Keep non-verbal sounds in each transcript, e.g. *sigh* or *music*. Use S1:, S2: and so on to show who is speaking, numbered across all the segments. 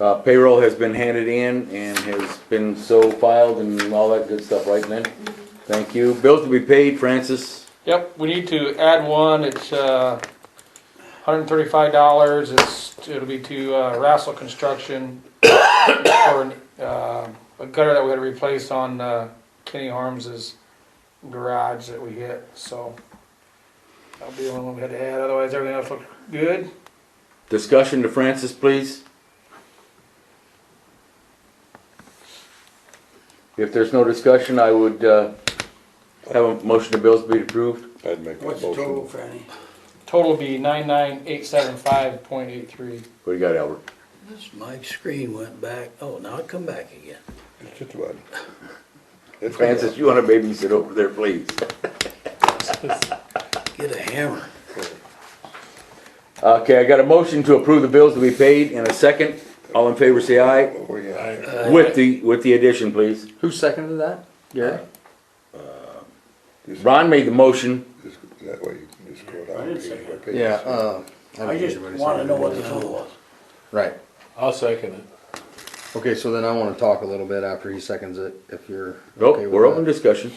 S1: Uh, payroll has been handed in and has been so filed and all that good stuff, right, Lynn? Thank you. Bills to be paid, Francis.
S2: Yep, we need to add one, it's, uh, hundred and thirty-five dollars, it's, it'll be to, uh, Rassel Construction for, an, uh, a gutter that we had to replace on, uh, Kenny Harms's garage that we hit, so. That'll be the only one we had to add, otherwise everything else looked good.
S1: Discussion to Francis, please. If there's no discussion, I would, uh, have a motion to bills be approved.
S3: I'd make that
S4: What's the total,
S3: motion.
S4: Franny?
S2: Total will be nine-nine-eight-seven-five point eight-three.
S1: What do you got, Albert?
S4: My screen went back, oh, now it come back again.
S3: It's just about. It's
S1: Francis, you wanna babysit over there, please?
S4: Get a hammer.
S1: Okay, I got a motion to approve the bills to be paid in a second. All in favor, say aye.
S3: Oh, yeah.
S1: With the, with the addition, please.
S5: Who seconded that? Gary?
S3: Just-
S1: Ron made the motion.
S3: just- That way you can just go down. page by page.
S5: Yeah, uh. don't
S4: I just
S5: think everybody
S4: wanna know
S5: seconded
S4: what the
S5: it.
S4: total was.
S5: Right,
S6: I'll second it.
S5: okay, so then I wanna talk a little bit after he seconds it, if you're. okay uh,
S1: Nope,
S5: with
S1: we're
S5: that.
S1: open discussion.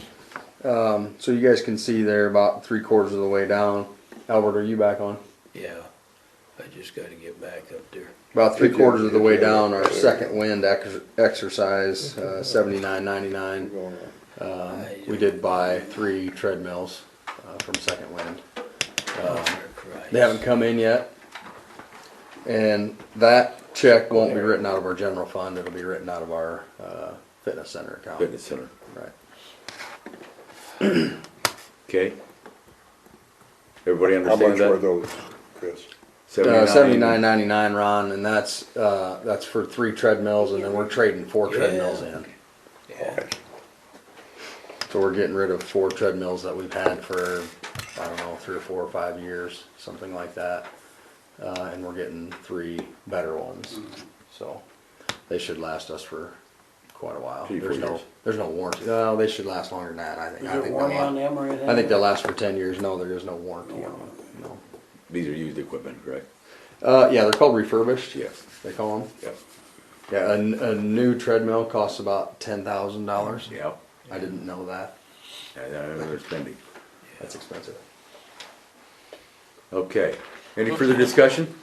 S5: Um, so you guys can see there about three quarters of the way down. Albert, are you back on?
S4: Yeah, I just gotta get back up there.
S5: About three
S3: Did you-
S5: quarters of the
S3: did
S5: way
S3: you-
S5: down, our second wind ex- exercise, uh, seventy-nine ninety-nine.
S3: Going on.
S5: Um, we did buy three treadmills, uh, from Second Wind. They haven't come in yet. And that check won't be written out of our general fund, it'll be written out of our, uh, fitness center account.
S1: Fitness center.
S5: Right.
S1: Okay. Everybody
S3: How much
S1: understand
S3: were
S1: that?
S3: those, Chris?
S5: Uh, Seventy-nine ninety-nine, Ron, and that's, uh, that's for three treadmills and then we're trading four
S4: Yeah.
S5: treadmills in. So we're getting rid of four treadmills that we've had for, I don't know, three or four or five years, something like that. Uh, and we're getting three better ones, so they should last us for quite a while.
S1: Three, four
S5: There's no,
S1: years.
S5: there's no warranty. No, they should last longer than that, I think.
S4: Is
S5: I
S4: there
S5: think
S4: one
S5: they'll
S4: on
S5: la-
S4: them or anything?
S5: I think they'll last for ten years. No, there is no warranty on them, no.
S1: These are used equipment, correct?
S5: Uh, yeah, they're called refurbished.
S1: Yes.
S5: They call them.
S1: Yep.
S5: Yeah, a, n- a new treadmill costs about ten thousand dollars.
S1: Yep.
S5: I didn't know that.
S1: I they're spending.
S5: That's expensive.
S1: Okay. Any further discussion?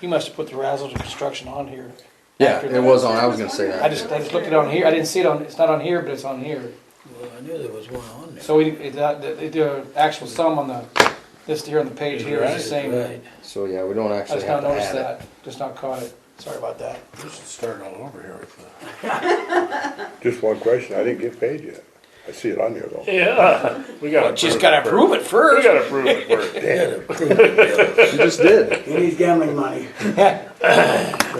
S2: You must have put the Rassel Construction on here.
S5: Yeah,
S2: After
S5: it
S2: that.
S5: was on. I was gonna say that.
S2: I just, I just looked it on here, I didn't see it on, it's not on here, but it's on here.
S4: Well, I knew there was one on there.
S2: So we, it, uh, the, the actual sum on the, this here on the page here is the same. I
S4: Right.
S5: So yeah, we don't actually
S2: just
S5: have
S2: not
S5: to
S2: noticed
S5: add it.
S2: that, just not caught it. Sorry about that.
S6: This is starting all over here with the.
S3: Just one question, I didn't get paid yet. I see it on there though.
S6: Yeah, we gotta.
S2: Just gotta prove it
S6: We
S2: first.
S6: gotta prove it first.
S5: You just did.
S4: He needs gambling money.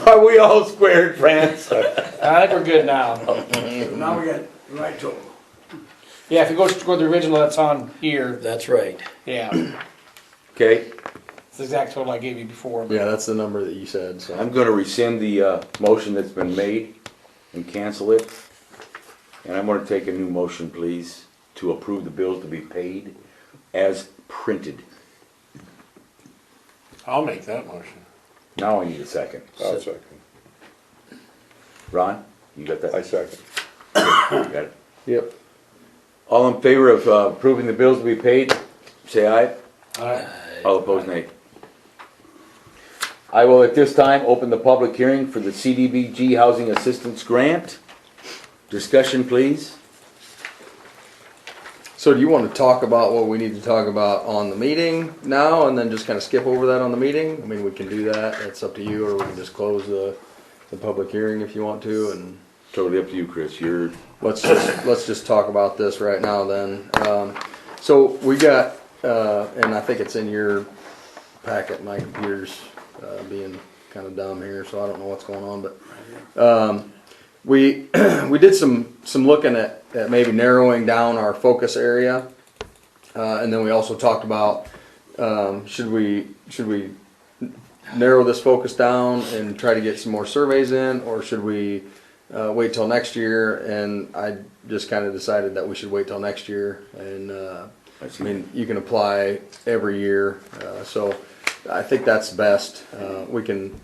S1: Are we all squared, France?
S2: I think we're good now.
S4: Now we got the right total.
S2: Yeah, if you go, go to the original, that's on here,
S4: That's right.
S2: yeah, it's
S1: Okay,
S2: the exact total I gave you before.
S5: Yeah, that's the number that you said. So
S1: I'm gonna rescind the, uh, motion that's been made and cancel it. And I'm gonna take a new motion, please, to approve the bills to be paid as printed.
S6: I'll make that motion.
S1: Now I need a second. Uh,
S3: I'll second.
S1: Ron, you got
S3: I
S1: that?
S3: second.
S1: You got it?
S5: yep.
S1: All in favor of uh, approving the bills to be paid, say aye.
S6: Aye.
S1: All opposed, nay. I will at this time open the public hearing for the CDBG Housing Assistance Grant. Discussion, please.
S5: So do you want to talk about what we need to talk about on the meeting now, and then just kind of skip over that on the meeting? I mean, we can do that. It's up to you, or we can just close the the public hearing if you want to, and
S1: Totally up to you, Chris. You're,
S5: let's just, let's just talk about this right now then. Um, so we got, uh, and I think it's in your packet, my computer's, uh, being kinda dumb here, so I don't know what's going on, but, um, we, *clears throat* we did some, some looking at, at maybe narrowing down our focus area. Uh, and then we also talked about, um, should we, should we narrow this focus down and try to get some more surveys in, or should we uh, wait till next year? And I just kind of decided that we should wait till next year. And uh,
S1: I
S5: I
S1: see.
S5: mean, you can apply every year, uh, so I think that's best. Uh, we can